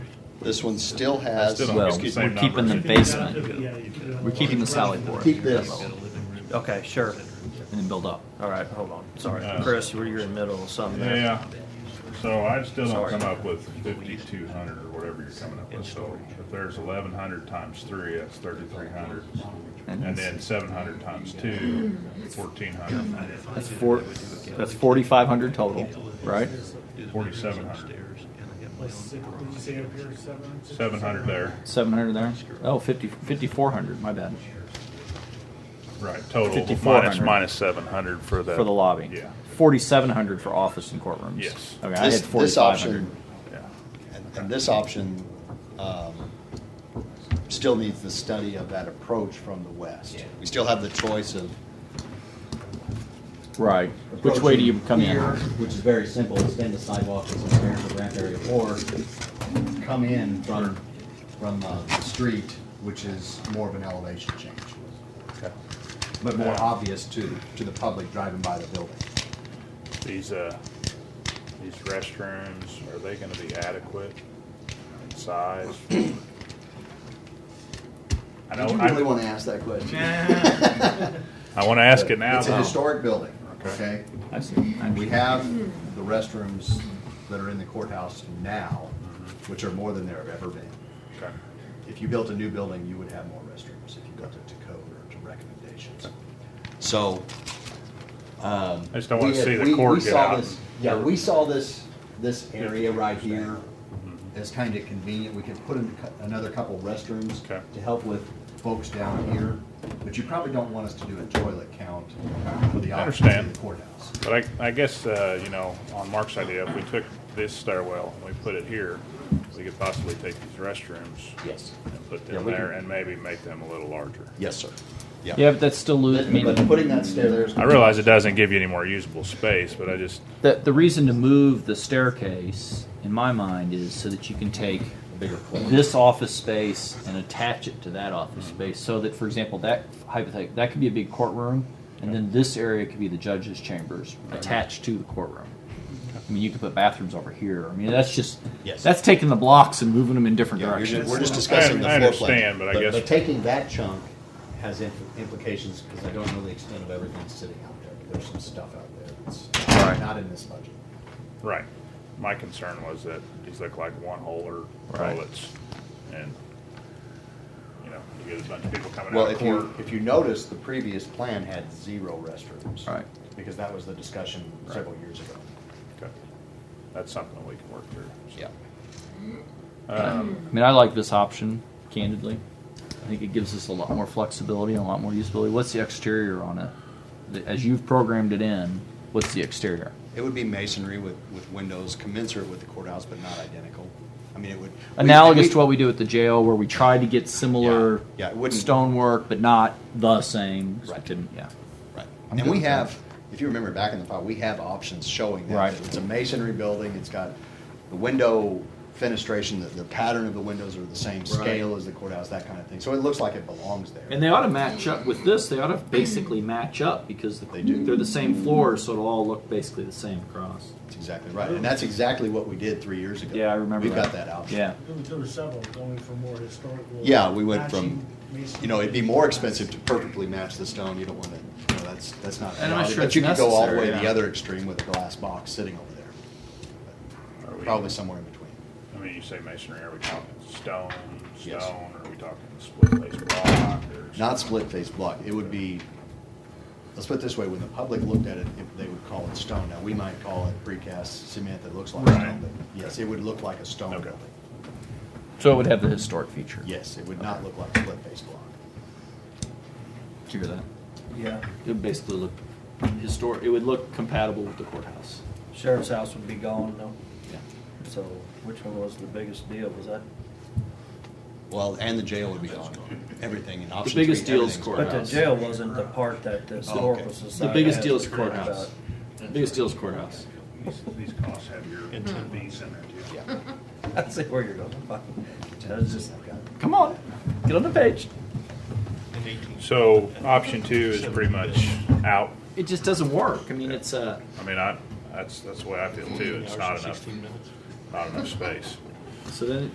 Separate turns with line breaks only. This one still has.
still don't
Well,
Excuse me,
we're
same
keeping the
numbers.
basement. We're keeping the salad board.
Keep this.
Okay, sure.
And then build up.
All right, hold on. Sorry,
Uh,
Chris, you are in the middle of something. there.
Yeah, so I still don't
Sorry.
come up with fifty-two hundred or whatever you're coming up with, so if there's eleven hundred times three, that's thirty-three hundred. And then seven hundred times two, fourteen hundred,
That's four, that's forty-five hundred total, right?
forty-seven hundred, seven hundred there,
Seven hundred there? Oh, fifty, fifty-four hundred, my bad.
right, total,
5400.
minus, minus seven hundred for the.
For the lobby.
Yeah,
Forty-seven hundred for office and courtrooms.
Yes.
Okay, I
This,
had
this
forty-five
option,
hundred.
yeah,
and- and this option, um, still needs the study of that approach from the west. We still have the choice of
Right. Which way do you
approaching
come in?
here, Which is very simple, extend the sidewalk as an area for ramp area, or come in from, from uh, the street, which is more of an elevation change. But more obvious to, to the public driving by the building.
these, uh, these restrooms, are they gonna be adequate in size? I know,
Did you really
I,
want to ask that question?
I wanna ask it now,
It's a
though.
historic building,
Okay.
okay?
I see.
And we have the restrooms that are in the courthouse now,
Mm-hmm.
which are more than there have ever been.
Okay.
If you built a new building, you would have more restrooms if you built it to code or to recommendations.
So. um,
I just don't wanna
We had-
see
we-
the
we
cord get
saw
out.
this- Yeah, we saw this, this area right here
Mm-hmm.
as kind of convenient. We could put in a cou- another couple restrooms
Okay.
to help with folks down here, but you probably don't want us to do a toilet count for the
I
office in
understand.
the courthouse.
But I, I guess, uh, you know, on Mark's idea, if we took this stairwell and we put it here, we could possibly take these restrooms
Yes.
and put
Yeah,
them
we
there
can-
and maybe make them a little larger.
Yes, sir.
Yeah, but that's still losing, I mean.
But putting that stair there is.
I realize it doesn't give you any more usable space, but I just,
The, the reason to move the staircase, in my mind, is so that you can take this office space and attach it to that office
Mm-hmm.
space. So that, for example, that hypothetical, that could be a big courtroom, and then this area could be the judge's chambers attached to the courtroom. I mean, you could put bathrooms over here. I mean, that's just,
Yes.
that's taking the blocks and moving them in different
Yeah, you're ju-
directions.
We're just
I,
discussing the
I
floor plan.
understand, but I guess,
taking that chunk has implications, because I don't know the extent of everything sitting out there. There's some stuff out there that's not in this budget.
right. My concern was that these look like one-holer
Right.
toilets and, you know, you get a bunch of people coming
Well,
out of
if
court.
you,
If you notice, the previous plan had zero restrooms.
Right.
Because that was the discussion several years ago.
Okay. That's something we can work through. so.
yeah.
Um, I mean, I like this option, candidly. I think it gives us a lot more flexibility and a lot more usability. What's the exterior on it? The- As you've programmed it in, what's the exterior?
It would be masonry with, with windows commensurate with the courthouse, but not identical. I mean, it would. we-
Analogous
we-
to what we do at the jail, where we try to get similar
Yeah, yeah, it wouldn't-
stonework, but not the same.
Right.
Didn't- yeah.
Right.
I'm
And
good
we
with
have, if you remember back in the file, we have options showing that.
Right.
It's a masonry building, it's got the window fenestration, the, the pattern of the windows are the same scale as the courthouse, that kind of thing. So it looks like it belongs there.
And they ought to match up with this. They ought to basically match up because
They do.
They're the same floor, so it'll all look basically the same across.
That's exactly right. And that's exactly what we did three years ago.
Yeah, I remember.
We've got that option.
Yeah.
There were several going for more historical.
Yeah, we went from,
matching
you know, it'd be more expensive to perfectly match the stone. You don't want to, you know, that's, that's not.
And I'm not
valid.
sure
But
it's
you could go all the way
necessary,
to the
yeah.
other extreme with a glass box sitting over there.
Are we-
Probably somewhere in between.
I mean, you say masonry, are we talking stone,
Yes.
stone, or are we talking split face block? or-
Not split face block, it would be, let's put it this way, when the public looked at it, if they would call it stone. Now, we might call it precast cement that looks like
Right.
stone, but yes, it would look like a stone
Okay.
building.
So it would have the historic feature.
Yes, it would not look like split face block.
Did you hear that?
Yeah.
It would basically look historic. It would look compatible with the courthouse.
Sheriff's house would be gone though.
Yeah.
So which one was the biggest deal? Was that?
Well, and the jail would be gone, everything and option three.
biggest deal is
everything's
court.
gone.
But the jail wasn't the part that the
Oh,
historical
okay.
society.
The biggest
has
deal is
to worry
courthouse.
about.
The biggest deal is courthouse.
These- These costs have your fees in there too.
Yeah.
I see where you're going. That was just,
Come on, get on the page.
So option two is pretty much out.
It just doesn't work. I mean, it's uh,
I mean, I, that's, that's the way I feel too. It's not enough, not enough space.
so then